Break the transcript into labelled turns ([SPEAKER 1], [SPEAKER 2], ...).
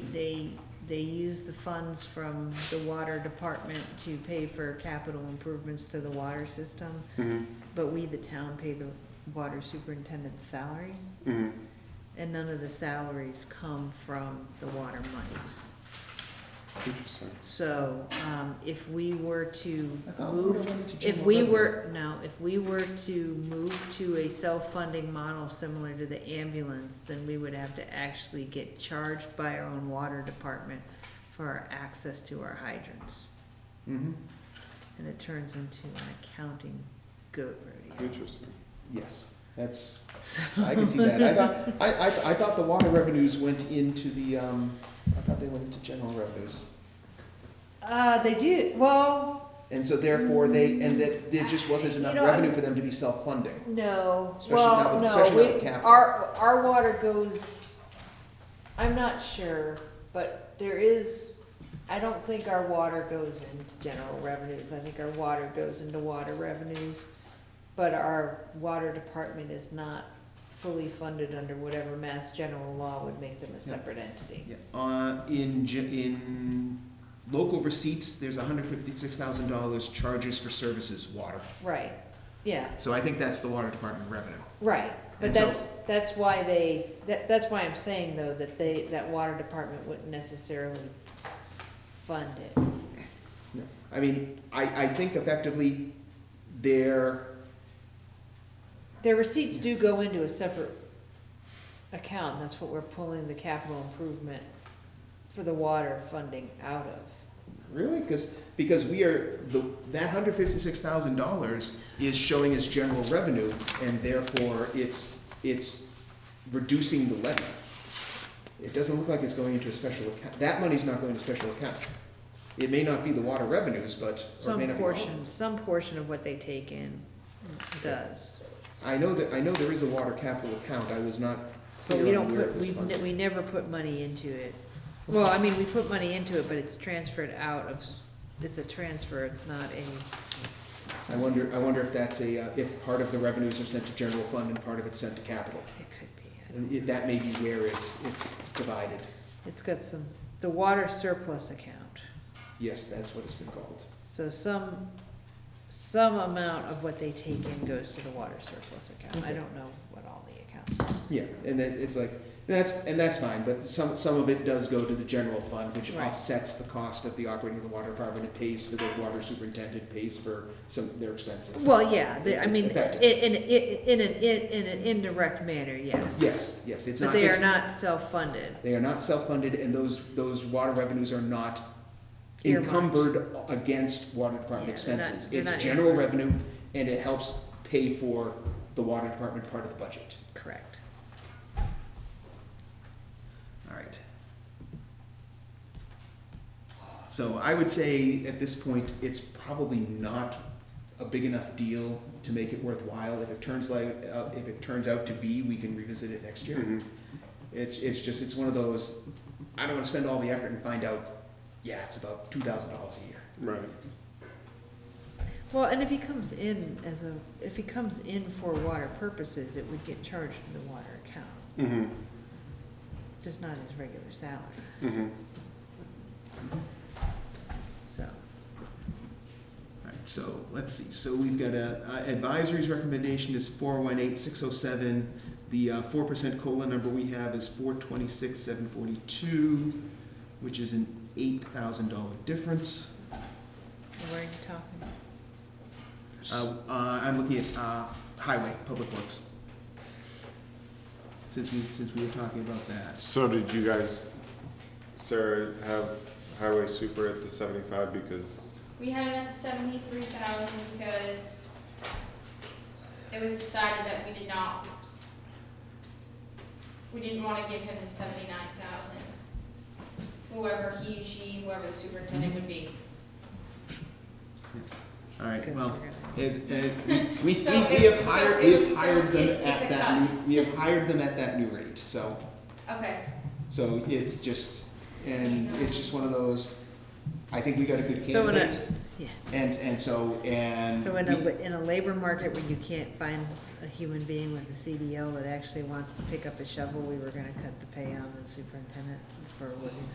[SPEAKER 1] They, they use the funds from the water department to pay for capital improvements to the water system,
[SPEAKER 2] Mm-hmm,
[SPEAKER 1] but we, the town, pay the water superintendent's salary,
[SPEAKER 2] mm-hmm.
[SPEAKER 1] and none of the salaries come from the water monies.
[SPEAKER 2] Interesting.
[SPEAKER 1] So, um, if we were to
[SPEAKER 3] I thought we
[SPEAKER 1] move,
[SPEAKER 3] wanted to
[SPEAKER 1] if
[SPEAKER 3] generate
[SPEAKER 1] we
[SPEAKER 3] revenue.
[SPEAKER 1] were, no, if we were to move to a self-funding model similar to the ambulance, then we would have to actually get charged by our own water department for our access to our hydrants.
[SPEAKER 3] Mhm.
[SPEAKER 1] And it turns into an accounting goat rodeo.
[SPEAKER 2] Interesting.
[SPEAKER 3] Yes, that's,
[SPEAKER 1] So-
[SPEAKER 3] I can see that. I thought, I, I, I thought the water revenues went into the, um, I thought they went into general revenues.
[SPEAKER 1] Uh, they do, well,
[SPEAKER 3] And so therefore they, and that there just wasn't enough
[SPEAKER 1] Mm. You know,
[SPEAKER 3] revenue for them to be self-funding.
[SPEAKER 1] no,
[SPEAKER 3] Especially not
[SPEAKER 1] well,
[SPEAKER 3] with-
[SPEAKER 1] no,
[SPEAKER 3] especially not
[SPEAKER 1] we,
[SPEAKER 3] with capital.
[SPEAKER 1] our, our water goes, I'm not sure, but there is, I don't think our water goes into general revenues, I think our water goes into water revenues, but our water department is not fully funded under whatever mass general law would make them a separate entity.
[SPEAKER 3] Yeah, Uh, in, ge- in local receipts, there's hundred fifty-six thousand dollars charges for services, water.
[SPEAKER 1] Right, yeah.
[SPEAKER 3] So I think that's the water department revenue.
[SPEAKER 1] Right, but
[SPEAKER 3] And so-
[SPEAKER 1] that's, that's why they, that, that's why I'm saying though, that they, that water department wouldn't necessarily fund it.
[SPEAKER 3] No. I mean, I, I think effectively their,
[SPEAKER 1] Their receipts do go into a separate account, that's what we're pulling the capital improvement for the water funding out of.
[SPEAKER 3] really, because, because we are, the, that hundred fifty-six thousand dollars is showing as general revenue, and therefore it's, it's reducing the levy. It doesn't look like it's going into a special account, that money's not going to special account. It may not be the water revenues, but, or it
[SPEAKER 1] Some
[SPEAKER 3] may not be all of it.
[SPEAKER 1] portion, some portion of what they take in does,
[SPEAKER 3] I know that, I know there is a water capital account, I was not
[SPEAKER 1] but we
[SPEAKER 3] clear
[SPEAKER 1] don't
[SPEAKER 3] on where
[SPEAKER 1] put,
[SPEAKER 3] it was
[SPEAKER 1] we, ne-
[SPEAKER 3] funded.
[SPEAKER 1] we never put money into it. Well, I mean, we put money into it, but it's transferred out of, s- it's a transfer, it's not a.
[SPEAKER 3] I wonder, I wonder if that's a, uh, if part of the revenues are sent to general fund and part of it's sent to capital.
[SPEAKER 1] It could be.
[SPEAKER 3] And it- that may be where it's, it's divided.
[SPEAKER 1] It's got some, the water surplus account.
[SPEAKER 3] Yes, that's what it's been called.
[SPEAKER 1] So some, some amount of what they take in goes to the water surplus account. I
[SPEAKER 3] Okay.
[SPEAKER 1] don't know what all the accounts is.
[SPEAKER 3] Yeah, and it, it's like, and that's, and that's fine, but some, some of it does go to the general fund, which
[SPEAKER 1] Right.
[SPEAKER 3] offsets the cost of the operating of the water department. It pays for the water superintendent, pays for some, their expenses.
[SPEAKER 1] Well, yeah, the- I
[SPEAKER 3] It's
[SPEAKER 1] mean,
[SPEAKER 3] effective.
[SPEAKER 1] i- in, i- in, an- i- in an indirect manner, yes.
[SPEAKER 3] Yes, yes, it's not.
[SPEAKER 1] But they
[SPEAKER 3] it's-
[SPEAKER 1] are not self-funded.
[SPEAKER 3] They are not self-funded, and those, those water revenues are not
[SPEAKER 1] Earmarked.
[SPEAKER 3] encumbered against water department
[SPEAKER 1] Yeah, they're not-
[SPEAKER 3] expenses.
[SPEAKER 1] they're
[SPEAKER 3] It's
[SPEAKER 1] not
[SPEAKER 3] general
[SPEAKER 1] earmarked.
[SPEAKER 3] revenue, and it helps pay for the water department part of the budget.
[SPEAKER 1] Correct.
[SPEAKER 3] All right. So I would say at this point, it's probably not a big enough deal to make it worthwhile. If it turns like, uh, if it turns out to be, we can revisit it next year.
[SPEAKER 2] Mhm.
[SPEAKER 3] It's, it's just, it's one of those, I don't wanna spend all the effort and find out, yeah, it's about two thousand dollars a year.
[SPEAKER 2] Right.
[SPEAKER 1] Well, and if he comes in as a, if he comes in for water purposes, it would get charged to the water account,
[SPEAKER 2] Mm-hmm,
[SPEAKER 1] just not his regular salary,
[SPEAKER 2] mm-hmm.
[SPEAKER 1] so.
[SPEAKER 3] Alright, so let's see, so we've got a, uh, advisory's recommendation is four one eight six oh seven. The uh, four percent COLA number we have is four twenty-six seven forty-two, which is an eight thousand dollar difference.
[SPEAKER 1] Where are you talking?
[SPEAKER 3] Uh, uh, I'm looking at, uh, highway, public works. Since we, since we were talking about that.
[SPEAKER 2] So did you guys, Sarah, have highway super at the seventy-five because,
[SPEAKER 4] We had it at the seventy-three thousand because it was decided that we did not, we didn't wanna give him the seventy-nine thousand. Whoever he, she, whoever the superintendent would be.
[SPEAKER 3] Alright,
[SPEAKER 1] Good,
[SPEAKER 3] well,
[SPEAKER 1] we're gonna-
[SPEAKER 3] Is, uh, we, we, we
[SPEAKER 4] So
[SPEAKER 3] we
[SPEAKER 4] it-
[SPEAKER 3] have
[SPEAKER 4] so
[SPEAKER 3] hired,
[SPEAKER 4] it
[SPEAKER 3] we have
[SPEAKER 4] was-
[SPEAKER 3] hired
[SPEAKER 4] it-
[SPEAKER 3] them
[SPEAKER 4] it's
[SPEAKER 3] at
[SPEAKER 4] a
[SPEAKER 3] that
[SPEAKER 4] cut.
[SPEAKER 3] new, we have hired them at that new rate, so,
[SPEAKER 4] Okay,
[SPEAKER 3] so it's just, and it's just one of those, I think we got a good
[SPEAKER 1] So in a,
[SPEAKER 3] candidate.
[SPEAKER 1] yeah,
[SPEAKER 3] And, and so, and.
[SPEAKER 1] so in
[SPEAKER 3] we-
[SPEAKER 1] a, in a labor market when you can't find a human being with a CDL that actually wants to pick up a shovel, we were gonna cut the pay on the superintendent for what he's